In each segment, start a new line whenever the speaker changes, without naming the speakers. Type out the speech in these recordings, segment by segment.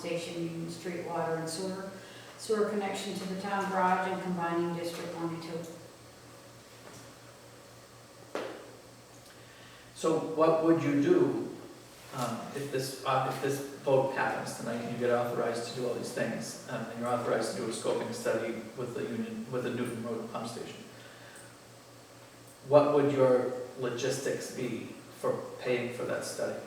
station using street water and sewer, sewer connection to the town garage and combining District One and Two.
So what would you do um, if this, uh, if this vote happens tonight and you get authorized to do all these things? um, And you're authorized to do a scoping study with the union, with the Newton Road pump station? What would your logistics be for paying for that study?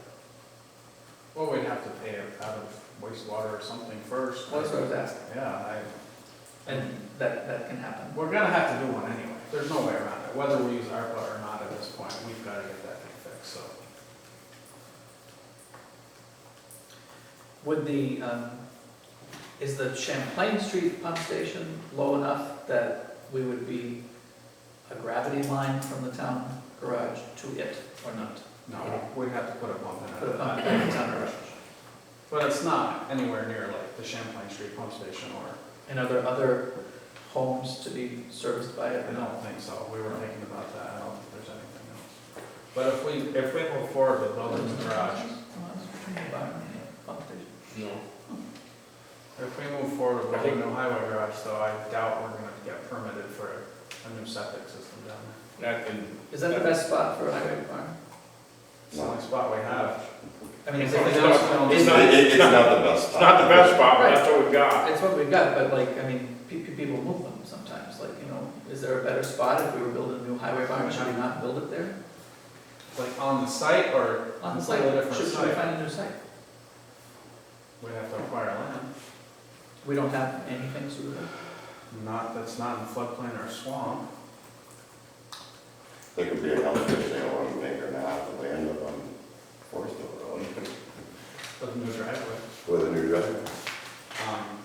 Well, we'd have to pay it out of wastewater or something first.
That's what I was asking.
Yeah,
And that, that can happen.
I, we're gonna have to do one anyway. There's no way around it. Whether we use ARPA or not at this point, we've gotta get that thing fixed, so.
Would the, um, is the Champlain Street pump station low enough that we would be a gravity line from the town garage to it or not?
No, we'd have to put a pump in
Put a
it.
pump in the town garage.
But it's not anywhere near like the Champlain Street pump station or,
And are there other homes to be serviced by it?
I don't think so. We were thinking about that. I don't think there's anything else. But if we, if we move forward with building the garage,
No.
If we move forward with building a highway garage, though, I doubt we're gonna get permitted for a new septic system down there.
That can,
Is that the best spot for a highway barn?
It's the only spot we have.
I mean, is it,
It's
not-
it's,
not-
It- it- It's not the best.
it's not the best spot, but that's what we got.
it's what we've got, but like, I mean, pe- pe- people move them sometimes, like, you know, is there a better spot if we were building a new highway barn, should we not build it there?
Like on the site or
On the
a
site,
different
should, should we
site?
find a new site?
We'd have to acquire land.
We don't have anything suitable.
Not, that's not in floodplain or swamp.
There could be a health issue on an acre and a half of land up on Forest Hill Road
With a new driveway.
with a new driveway.
Um,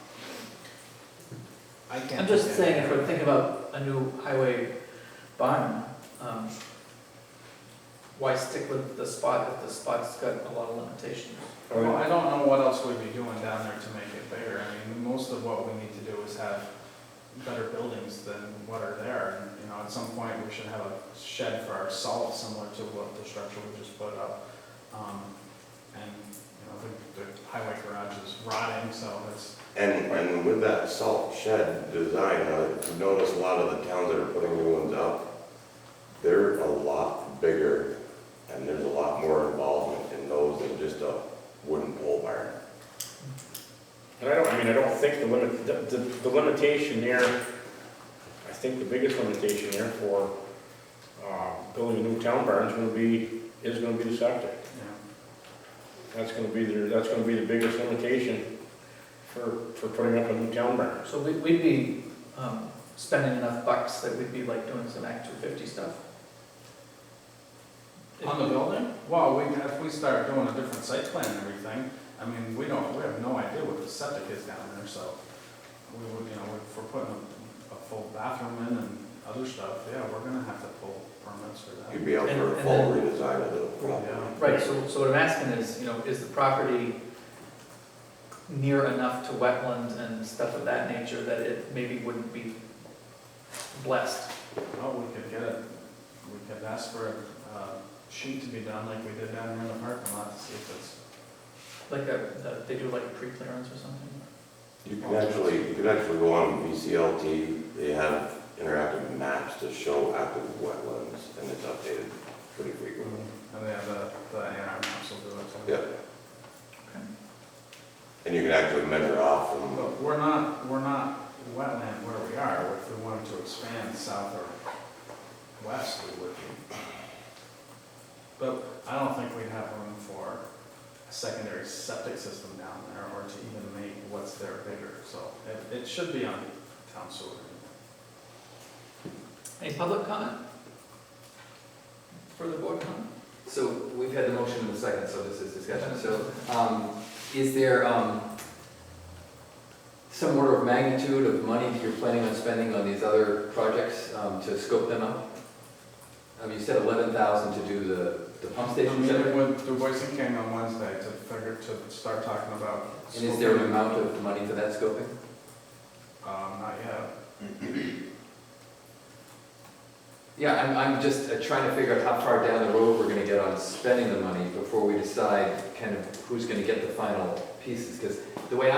I can't.
I'm just
think of
saying, if
anything.
we're thinking about a new highway barn, um, why stick with the spot if the spot's got a lot of limitations?
I mean,
Well, I don't know what else we'd be doing down there to make it bigger. I mean, most of what we need to do is have better buildings than what are there. And, you know, at some point, we should have a shed for our salt similar to what the structure we just put up. Um, And, you know, the, the highway garage is rotting, so it's,
And, and with that salt shed design, I've noticed a lot of the towns that are putting new ones up, they're a lot bigger and there's a lot more involvement in those than just a wooden pole barn.
And I don't, I mean, I don't think the limit, the, the- the limitation there, I think the biggest limitation there for, uh, building a new town barn is gonna be, is gonna be the septic.
you know,
That's gonna be the, that's gonna be the biggest limitation for, for putting up a new town barn.
So we, we'd be, um, spending enough bucks that we'd be like doing some Act two fifty stuff?
on the building. Well, we, if we start doing a different site plan and everything, I mean, we don't, we have no idea what the septic is down there, so we would, you know, if we're putting a, a full bathroom in and other stuff, yeah, we're gonna have to pull permits for that.
You'd be out for a full redesign of the property.
Yeah.
Right, so, so what I'm asking is, you know, is the property near enough to wetlands and stuff of that nature that it maybe wouldn't be blessed?
Well, we could get it, we could ask for a uh, sheet to be done like we did down there in the parking lot to see if it's,
Like a, they do like pre-clearance or something?
You can actually, you can actually go on VCLT, they have interactive maps to show active wetlands, and it's updated pretty frequently.
and they have the, the A and R maps will do it.
Yeah. And you can actually measure off from,
But we're not, we're not wetland where we are, if we wanted to expand south or west, we would be. But I don't think we'd have room for a secondary septic system down there, or to even make what's there bigger, so it, it should be on town sewer.
Any public comment? Further board comment?
So we've had the motion in the second, so this is discussion. So um, is there um, some order of magnitude of money that you're planning on spending on these other projects um, to scope them out? Um, You said 11,000 to do the the pump
I'm
station
meeting
center?
with DuBois King on Wednesday to figure, to start talking about.
And is there an amount of money for that scoping?
Um, not yet.
Yeah, I'm, I'm just uh, trying to figure out how far down the road we're gonna get on spending the money before we decide kind of who's gonna get the final pieces, because the way